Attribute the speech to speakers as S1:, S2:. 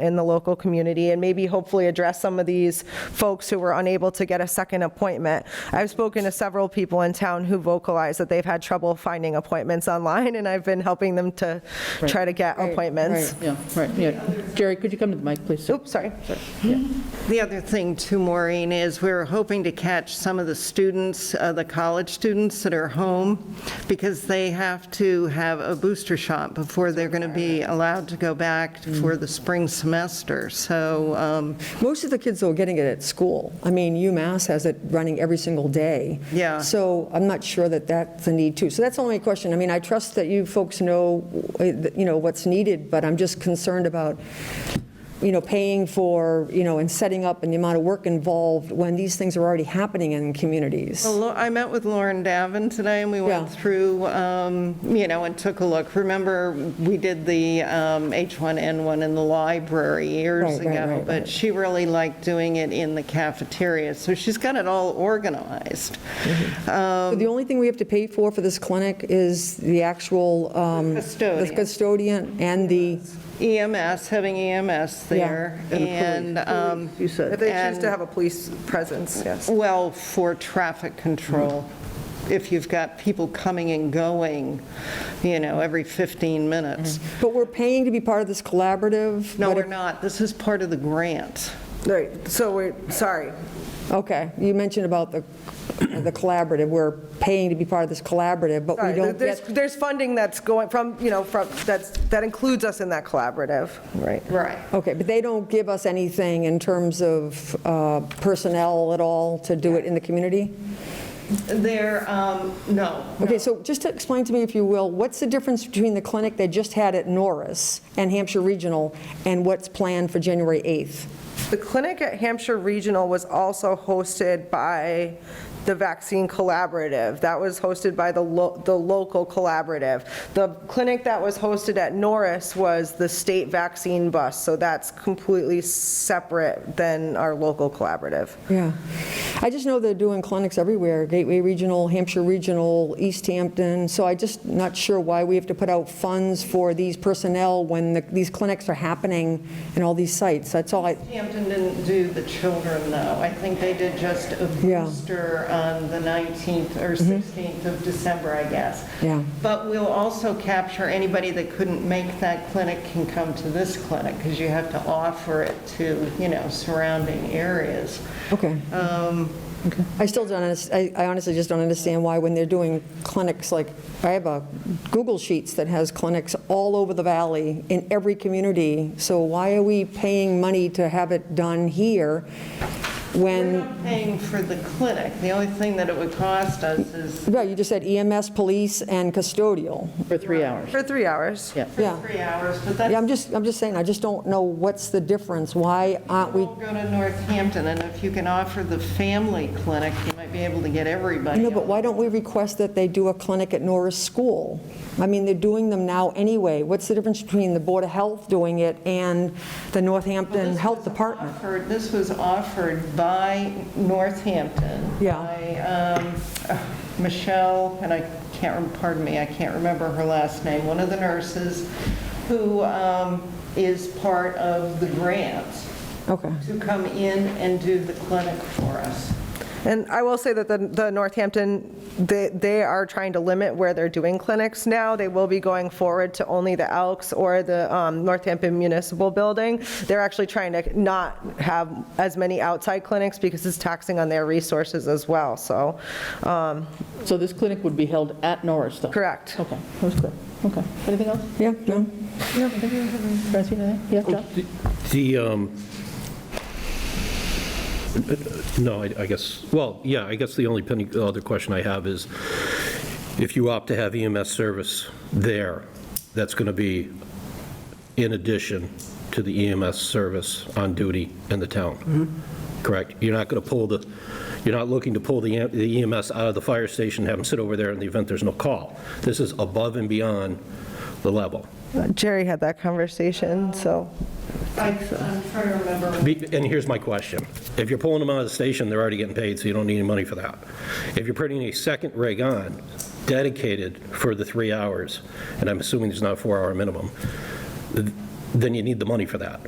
S1: in the local community and maybe hopefully address some of these folks who were unable to get a second appointment. I've spoken to several people in town who vocalize that they've had trouble finding appointments online, and I've been helping them to try to get appointments.
S2: Right, Yeah, right, yeah. Jerry, could you come to the mic, please?
S1: Oops, sorry.
S3: The other thing too, Maureen, is we're hoping to catch some of the students, uh, the college students that are home, because they have to have a booster shot before they're going to be allowed to go back for the spring semester. So um,
S4: Most of the kids, though, are getting it at school. I mean, UMass has it running every single day.
S3: Yeah.
S4: So I'm not sure that that's a need, too. So that's only a question. I mean, I trust that you folks know, uh, you know, what's needed, but I'm just concerned about, you know, paying for, you know, and setting up and the amount of work involved when these things are already happening in communities.
S3: Well, Lo- I met with Lauren Davin today, and we went
S4: Yeah.
S3: through, um, you know, and took a look. Remember, we did the um, H1N1 in the library years
S4: Right, right,
S3: ago,
S4: right,
S3: but
S4: right.
S3: she really liked doing it in the cafeteria, so she's got it all organized. Um,
S4: So The only thing we have to pay for for this clinic is the actual. um, The
S3: Custodian.
S4: custodian and the,
S3: EMS, E having EMS there, and, um,
S2: You said.
S1: If they choose
S3: And- Oh.
S1: to have a police presence, yes.
S3: well, for traffic control, if you've got people coming and going, you know, every 15 minutes.
S1: Mm-hmm.
S4: but we're paying to be part of this collaborative?
S3: No,
S4: but
S3: we're
S4: if-
S3: not. This is part of the grant.
S1: Right, so we're, sorry.
S4: Okay, you mentioned about the, the collaborative, we're paying to be part of this collaborative, but we
S1: Sorry,
S4: don't
S1: there's,
S4: get,
S1: there's funding that's going from, you know, from, that's, that includes us in that collaborative, right?
S3: Right.
S4: okay, but they don't give us anything in terms of uh, personnel at all to do it in the community?
S3: There, um, no.
S4: Okay, so just to explain to me, if you will, what's the difference between the clinic they just had at Norris and Hampshire Regional and what's planned for January 8th?
S1: The clinic at Hampshire Regional was also hosted by the Vaccine Collaborative. That was hosted by the, lo- the local collaborative. The clinic that was hosted at Norris was the state vaccine bus, so that's completely separate than our local collaborative.
S4: Yeah. I just know they're doing clinics everywhere, Gateway Regional, Hampshire Regional, East Hampton, so I just not sure why we have to put out funds for these personnel when the- these clinics are happening in all these sites. That's all I,
S3: Hampton didn't do the children, though. I think they did just a
S4: Yeah. Mm-hmm.
S3: booster on the 19th or 16th of December, I guess.
S4: Yeah.
S3: But we'll also capture anybody that couldn't make that clinic can come to this clinic, because you have to offer it to, you know, surrounding areas.
S4: okay. I still don't, unders- I I honestly just don't understand why when they're doing clinics, like, I have a Google Sheets that has clinics all over the valley in every community, so why are we paying money to have it done here
S3: We're
S4: when?
S3: not paying for the clinic. The only thing that it would cost us is
S4: Right, you just said EMS, police, and custodial.
S2: For three hours.
S1: For three hours.
S2: Yeah.
S4: Yeah.
S3: three hours, but
S4: Yeah, I'm
S3: that's,
S4: just, I'm just saying, I just don't know what's the difference. Why aren't we?
S3: we'll go to Northampton, and if you can offer the family clinic, you might be able to get everybody.
S4: No, but why don't we request that they do a clinic at Norris School? I mean, they're doing them now anyway. What's the difference between the Board of Health doing it and the Northampton Health Department?
S3: Offered- This was offered by Northampton.
S4: Yeah.
S3: By um, Michelle, and I can't, rem- pardon me, I can't remember her last name, one of the nurses who um, is part of the grant
S4: Okay.
S3: to come in and do the clinic for us.
S1: And I will say that the, the Northampton, they, they are trying to limit where they're doing clinics now. They will be going forward to only the Elks or the um, Northampton Municipal Building. They're actually trying to not have as many outside clinics because it's taxing on their resources as well, so, um,
S2: So this clinic would be held at Norris, though?
S1: correct.
S2: Okay, that was clear. Okay. Anything else?
S4: Yeah, no?
S2: Francine, anything? Yeah, John?
S5: The, um, no, I I guess, well, yeah, I guess the only pending, other question I have is, if you opt to have EMS service there, that's going to be in addition to the EMS service on duty in the town, correct? You're not going to pull the, you're not looking to pull the am- the EMS out of the fire station, have them sit over there in the event there's no call. This is above and beyond the level.
S1: Jerry had that conversation, so.
S3: I- I'm trying to remember
S5: Be- And here's my question. If you're pulling them out of the station, they're already getting paid, so you don't need any money for that. If you're putting a second rig on dedicated for the three hours, and I'm assuming there's not a four-hour minimum, then you need the money for that.